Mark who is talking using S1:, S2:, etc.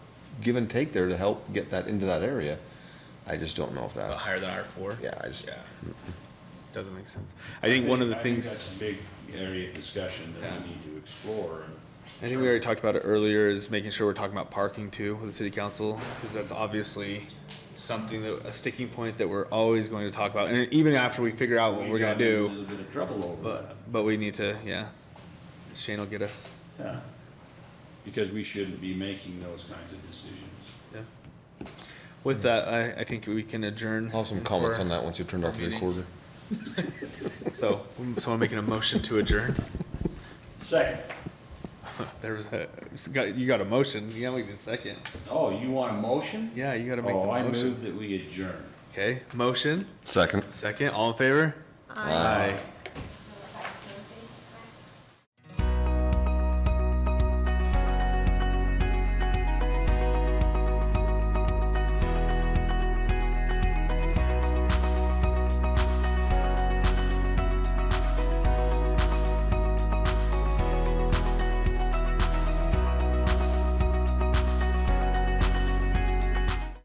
S1: give and take there to help get that into that area. I just don't know if
S2: Uh,
S1: that,
S2: higher than R four?
S1: yeah, I just,
S2: Yeah.
S3: Doesn't make sense. I think one of the things,
S4: that's a big area of discussion that we need to explore. and
S3: I think we already talked about it earlier, is making sure we're talking about parking too with the city council, because that's obviously something that, a sticking point that we're always going to talk about, and even after we figure out what
S4: we
S3: we're gonna
S4: got in A
S3: do,
S4: little bit of trouble over
S3: but, but we need to, yeah. Shane will get us.
S4: that, yeah. Because we shouldn't be making those kinds of decisions.
S3: With that, I, I think we can adjourn.
S1: I'll have some comments
S3: for-
S1: on that once you turned off the
S2: Meeting.
S1: recorder.
S3: So, someone making a motion to adjourn.
S4: Second,
S3: There was a, it's got- you got a motion, you gotta make the second.
S4: oh, you want a motion?
S3: Yeah, you gotta make the
S4: Oh, I
S3: motion.
S4: move that we adjourn.
S3: Okay, motion,
S1: Second.
S3: second, all in favor? Aye.